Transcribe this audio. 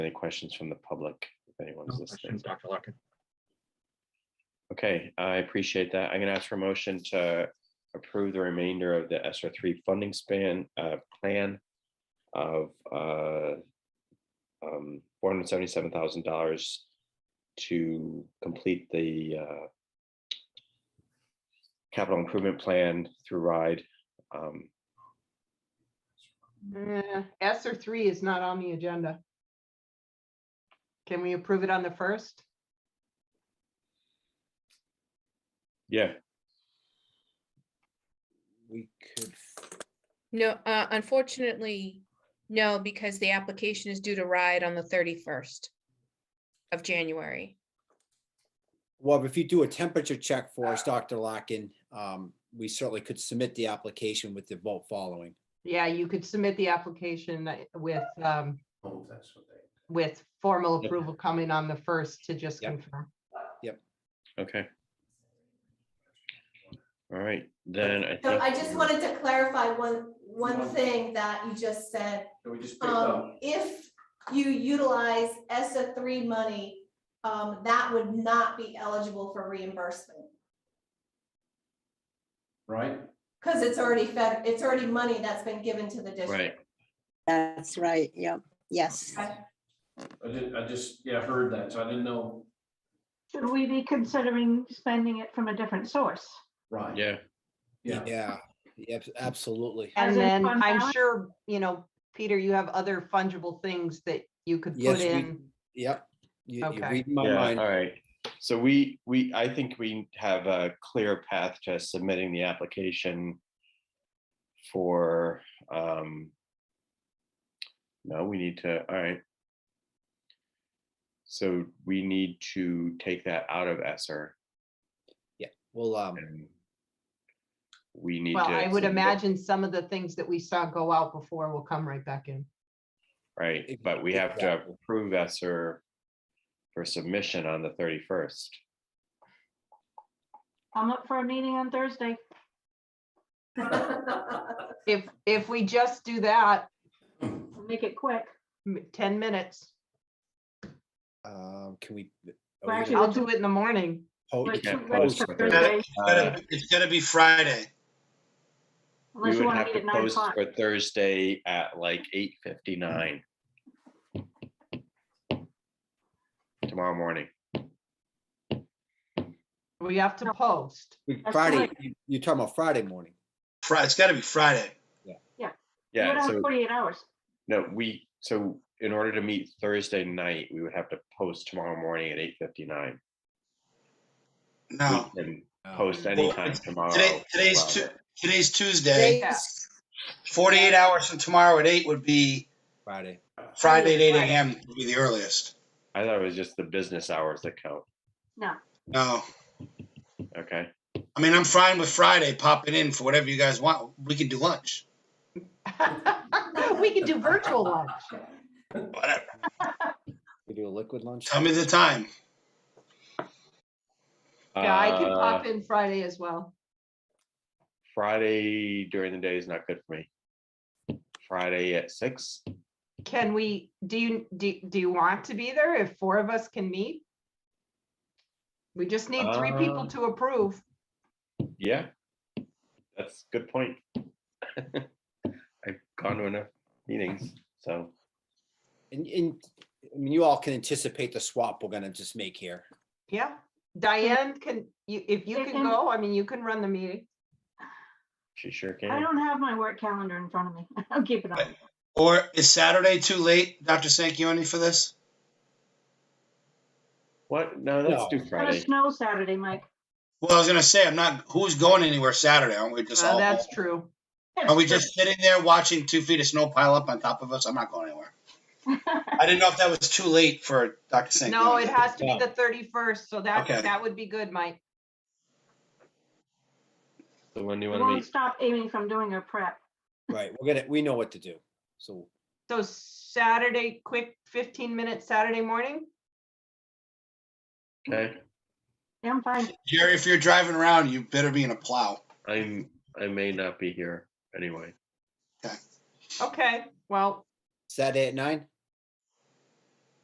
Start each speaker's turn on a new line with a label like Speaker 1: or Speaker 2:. Speaker 1: Any questions from the public? If
Speaker 2: No
Speaker 1: anyone's listening.
Speaker 2: questions, Dr. Larkin.
Speaker 1: Okay, I appreciate that. I'm gonna ask for a motion to approve the remainder of the SR three funding span, uh, plan of, uh, um, four hundred seventy-seven thousand dollars to complete the, uh, capital improvement plan through RIDE. Um,
Speaker 3: Eh, S or three is not on the agenda. Can we approve it on the first?
Speaker 1: yeah,
Speaker 4: We could,
Speaker 5: No, uh, unfortunately, no, because the application is due to ride on the thirty-first of January.
Speaker 4: well, if you do a temperature check for us, Dr. Larkin, um, we certainly could submit the application with the vote following.
Speaker 3: Yeah, you could submit the application with, um, with formal
Speaker 1: Yep.
Speaker 3: approval coming on the first to just
Speaker 4: Yep.
Speaker 3: confirm.
Speaker 1: okay. All right, then I
Speaker 6: So
Speaker 1: think.
Speaker 6: I just wanted to clarify one, one thing that you just said. Um, if you utilize ESSA three money, um, that would not be eligible for reimbursement.
Speaker 7: right?
Speaker 6: Cause it's already fed, it's already money that's been given to the
Speaker 1: Right,
Speaker 6: district.
Speaker 8: That's right, yep, yes.
Speaker 6: Okay.
Speaker 7: I did, I just, yeah, heard that, so I didn't know,
Speaker 9: Should we be considering spending it from a different source?
Speaker 7: right?
Speaker 1: yeah,
Speaker 7: Yeah,
Speaker 4: Yeah, yep, absolutely.
Speaker 3: And
Speaker 9: As in
Speaker 3: then
Speaker 9: fund
Speaker 3: I'm
Speaker 9: balance?
Speaker 3: sure, you know, Peter, you have other fungible things that you could
Speaker 4: Yes,
Speaker 3: put
Speaker 4: we-
Speaker 3: in.
Speaker 4: Yep. You, you
Speaker 3: Okay.
Speaker 4: read my
Speaker 1: Yeah,
Speaker 4: mind.
Speaker 1: All right, so we, we, I think we have a clear path to submitting the application for, um, no, we need to, all right. So we need to take that out of ESER
Speaker 4: Well, um,
Speaker 1: and we need to.
Speaker 3: Well, I would
Speaker 1: submit-
Speaker 3: imagine some of the things that we saw go out before will come right back in.
Speaker 1: Right, but we have to
Speaker 4: Exactly.
Speaker 1: approve ESER for submission on the thirty-first.
Speaker 9: I'm up for a meeting on Thursday.
Speaker 3: If, if we just do that,
Speaker 9: Make it quick.
Speaker 3: m- ten minutes,
Speaker 4: um, can we? are we
Speaker 9: Well,
Speaker 4: gonna
Speaker 9: actually,
Speaker 3: I'll do it in the morning.
Speaker 4: po-
Speaker 9: But
Speaker 1: can't
Speaker 9: too late
Speaker 1: post
Speaker 9: for
Speaker 1: for
Speaker 9: Thursday,
Speaker 1: Uh,
Speaker 10: It's gonna be Friday.
Speaker 1: We
Speaker 9: Unless you
Speaker 1: would
Speaker 9: want to
Speaker 1: have
Speaker 9: meet
Speaker 1: to
Speaker 9: at nine
Speaker 1: post
Speaker 9: o'clock.
Speaker 1: for Thursday at like eight fifty-nine. Tomorrow morning.
Speaker 3: We have to post.
Speaker 4: we-
Speaker 9: That's
Speaker 4: Friday,
Speaker 9: right.
Speaker 4: you- you're talking about Friday morning.
Speaker 10: Friday, it's gotta be Friday.
Speaker 9: You
Speaker 1: Yeah,
Speaker 9: don't have
Speaker 1: so,
Speaker 9: forty-eight hours.
Speaker 1: no, we, so in order to meet Thursday night, we would have to post tomorrow morning at eight fifty-nine.
Speaker 10: No,
Speaker 1: We can
Speaker 4: Oh.
Speaker 1: post
Speaker 10: Well,
Speaker 1: anytime
Speaker 10: it's-
Speaker 1: tomorrow.
Speaker 10: today, today's
Speaker 1: Wow.
Speaker 10: Tu- today's Tuesday. Forty-eight hours from tomorrow at eight would be
Speaker 4: Friday.
Speaker 10: Friday at eight
Speaker 3: Friday.
Speaker 10: AM would be the earliest.
Speaker 1: I thought it was just the business hours that count.
Speaker 10: No,
Speaker 1: Okay,
Speaker 10: I mean, I'm fine with Friday popping in for whatever you guys want. We can do lunch,
Speaker 3: We could do virtual lunch.
Speaker 10: whatever.
Speaker 4: We do a liquid lunch.
Speaker 10: Tell me the time.
Speaker 3: Yeah, I can
Speaker 1: Uh,
Speaker 3: pop in Friday as well.
Speaker 1: Friday during the day is not good for me. Friday at six,
Speaker 3: Can we, do you, do, do you want to be there if four of us can meet? We just need three people
Speaker 10: Uh.
Speaker 1: Um,
Speaker 3: to approve.
Speaker 1: yeah. That's a good point. I've gone to enough meetings, so.
Speaker 4: And, and, I mean, you all can anticipate the swap we're gonna just make here.
Speaker 3: Yeah, Diane can, you, if you
Speaker 9: They
Speaker 3: can
Speaker 9: can-
Speaker 3: go, I mean, you can run the meeting.
Speaker 1: She sure
Speaker 9: I
Speaker 1: can.
Speaker 9: don't have my work calendar in front of me. I'll keep it on.
Speaker 10: Or is Saturday too late, Dr. Sanquioni, for this?
Speaker 1: What? No, let's
Speaker 4: No.
Speaker 1: do
Speaker 9: Got a
Speaker 1: Friday.
Speaker 9: snow Saturday, Mike.
Speaker 10: Well, I was gonna say, I'm not, who's going anywhere Saturday? Aren't we just
Speaker 3: Well,
Speaker 10: all,
Speaker 3: Uh, that's true.
Speaker 10: are we just sitting there watching two feet of snow pile up on top of us? I'm not going anywhere. I didn't know if that was too late for Dr. Sanquioni.
Speaker 3: No, it has to be
Speaker 4: Yeah.
Speaker 3: the thirty-first, so that,
Speaker 10: Okay.
Speaker 3: that would be good, Mike.
Speaker 1: So when do you
Speaker 9: It
Speaker 1: want to
Speaker 9: won't
Speaker 1: meet?
Speaker 9: stop Amy from doing her prep.
Speaker 4: Right, we're gonna, we know what to do. So
Speaker 3: So Saturday, quick fifteen-minute Saturday morning?
Speaker 1: Okay,
Speaker 9: Yeah, I'm fine.
Speaker 10: Jerry, if you're driving around, you better be in a plow.
Speaker 1: I'm, I may not be here anyway.
Speaker 3: Okay, well,
Speaker 4: Saturday at nine?